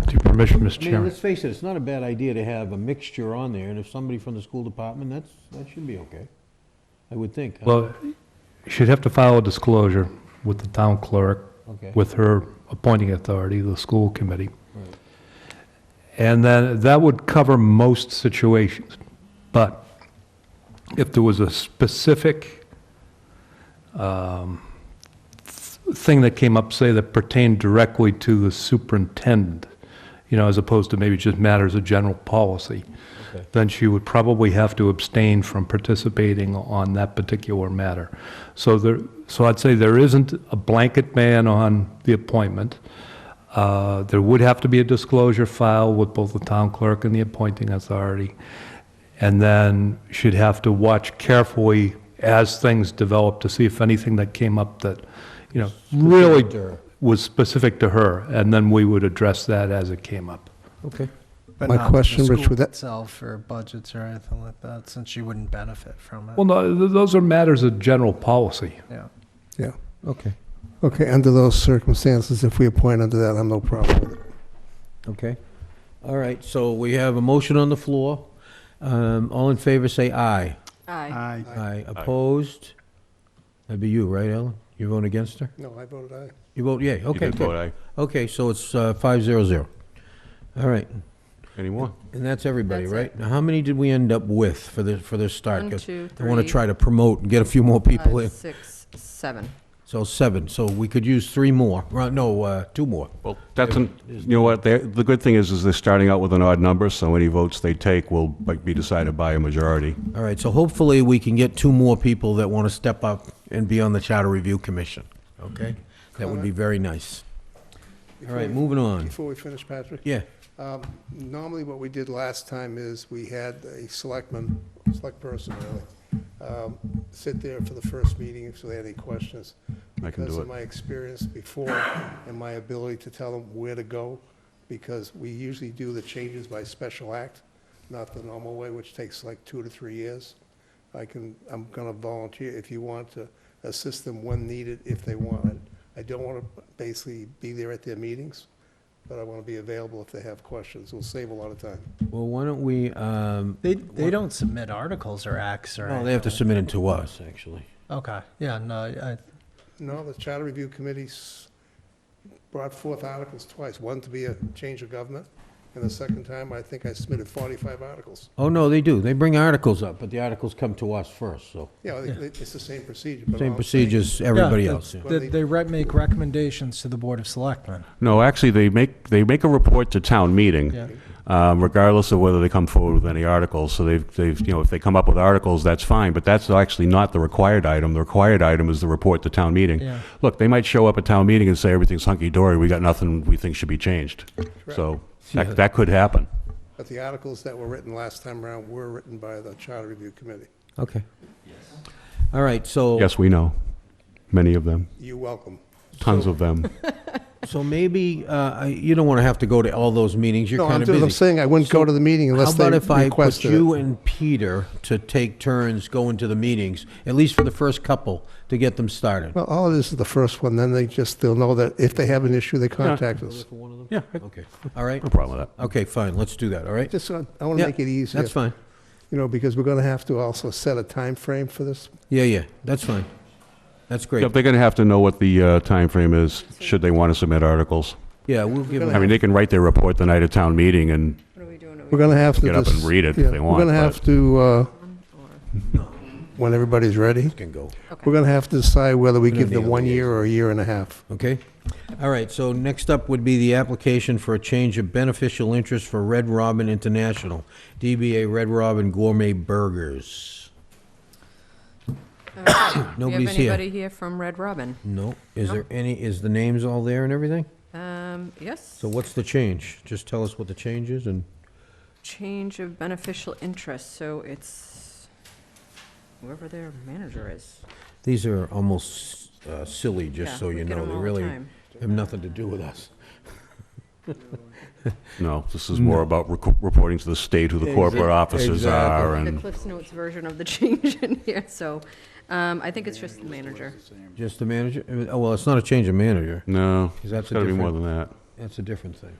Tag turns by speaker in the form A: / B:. A: permission, Mr.
B: I mean,
A: Chairman.
B: let's face it, it's not a bad idea to have a mixture on there, and if somebody from the school department, that's, that should be okay, I would think.
A: Well, she'd have to file a disclosure with the town clerk,
B: Uh, Okay.
A: with her appointing authority, the school committee.
B: Right.
A: And then that would cover most situations. But if there was a specific um, th- thing that came up, say, that pertained directly to the superintendent, you know, as opposed to maybe just matters of general policy,
B: Okay.
A: then she would probably have to abstain from participating on that particular matter. So there, so I'd say there isn't a blanket ban on the appointment. Uh, There would have to be a disclosure file with both the town clerk and the appointing authority. And then she'd have to watch carefully as things develop to see if anything that came up that, you know, really
B: Specific to her.
A: was specific to her. And then we would address that as it came up.
B: Okay.
C: But
D: My
C: not the
D: question, Rich,
C: school
D: would that-
C: Itself or budgets or anything like that, since you wouldn't benefit from
A: Well,
C: it.
A: no, th- those are matters of general policy.
C: Yeah.
D: Yeah,
B: Okay,
D: okay, under those circumstances, if we appoint under that, I'm no problem with it.
B: okay. All right, so we have a motion on the floor. Um, all in favor, say aye.
E: Aye.
C: I
B: Aye. Opposed? That'd be you, right, Ellen? You're voting against her?
D: No, I voted aye.
B: You vote yea, okay,
F: did vote
B: good.
F: aye.
B: Okay, so it's uh, five zero zero. All right,
F: Any more?
B: and that's everybody,
E: That's it.
B: right? Now, how many did we end up with for this, for this start?
E: One,
B: 'Cause
E: two,
B: I want to
E: three,
B: try to promote and get a few more people
E: five,
B: in.
E: Six, seven.
B: So seven, so we could use three more, Right, no, uh, two more.
F: Well, that's, an- you know what, they're- the good thing is, is they're starting out with an odd number, so any votes they take will be decided by a majority.
B: All right, so hopefully we can get two more people that want to step up and be on the Charter Review Commission, okay? That would be very nice. All right, moving on.
D: Before we finish, Patrick,
B: Yeah,
D: um, normally what we did last time is we had a selectman, select person really, um, sit there for the first meeting if they had any questions.
F: I can
D: because
F: do
D: of
F: it.
D: my experience before and my ability to tell them where to go, because we usually do the changes by special act, not the normal way, which takes like two to three years. I can, I'm gonna volunteer if you want to assist them when needed, if they want it. I don't wanna basically be there at their meetings, but I wanna be available if they have questions. We'll save a lot of time.
B: well, why don't we, um,
C: They, they don't submit articles or acts or.
B: no, they have to
C: anything
B: submit it to us, actually.
C: like- Okay, yeah, no, I,
D: No, the Charter Review Committee s- brought forth articles twice, one to be a change of government, and the second time, I think I submitted 45 articles.
B: Oh, no, they do, they bring articles up, but the articles come to us first, so,
D: Yeah, they- they- it's the same procedure. but all
B: same
D: I'm
B: procedure as everybody
C: Yeah,
B: else, yeah.
C: they, they re- make recommendations to the Board of Selectmen.
F: No, actually, they make, they make a report to town meeting,
C: Yeah.
F: um, regardless of whether they come forward with any articles. So they've, they've, you know, if they come up with articles, that's fine, but that's actually not the required item. The required item is the report to town meeting.
C: Yeah.
F: Look, they might show up at town meeting and say, everything's hunky-dory, we got nothing we think should be changed. So
B: Yeah.
F: that, that could happen.
D: saying. But the articles that were written last time around were written by the Charter Review Committee.
B: Okay. All right, so.
F: Yes, we know, many of them,
D: You're welcome.
F: tons of them.
B: So maybe, uh, I- you don't want to have to go to all those meetings, you're
D: No,
B: kind
D: I'm
B: of busy.
D: just- I'm saying I wouldn't go to the meeting
B: How
D: unless they
B: about if I put
D: requested
B: you
D: it.
B: and Peter to take turns going to the meetings, at least for the first couple, to get them started?
D: Well, all it is is the first one, then they just, they'll know that if they have an issue, they contact us.
F: Yeah,
B: Okay, all right?
F: no problem with that.
B: Okay, fine, let's do that, all right?
D: Just, uh, I want to
B: Yeah,
D: make it easier,
B: That's fine.
D: you know, because we're going to have to also set a time frame for this.
B: Yeah, yeah, that's fine. That's great.
F: Yep, they're going to have to know what the uh, timeframe is, should they want to submit articles.
B: Yeah, we'll give
F: I
B: them,
F: mean, they can write their report the night of town meeting, and
E: What are we doing? Are we
D: We're going to have to
F: Get up and
D: just-
F: read it if
D: yeah,
F: they want,
D: We're going to have
F: but-
D: to, uh,
E: on or-
D: when everybody's ready,
B: can go,
D: we're going to have to decide whether we
B: We don't
D: give them
B: need
D: one
B: all the
D: year or a year and a half.
B: okay? All right, so next up would be the application for a change of beneficial interest for Red Robin International, DBA Red Robin Gourmet Burgers. Nobody's
E: Do you
B: here.
E: have anybody here from Red Robin?
B: No, is
E: No.
B: there any, is the names all there and everything?
E: Um, yes.
B: So what's the change? Just tell us what the change is and,
E: Change of beneficial interest, so it's whoever their manager is.
B: these are almost uh, silly,
E: Yeah,
B: just so you
E: we get
B: know.
E: them
B: They
E: all the
B: really
E: time.
B: have nothing to do with us.
F: no, this is more about rec- reporting to the state who the corporate
B: Mm. Exac-
F: offices are,
E: The
F: and
E: Cliff's Notes version of the change in here, so, um, I think it's just the manager.
B: Just the manager? Oh, well, it's not a change of manager.
F: no,
B: Is that
F: it's got to be
B: different-
F: more than that.
B: That's a different thing.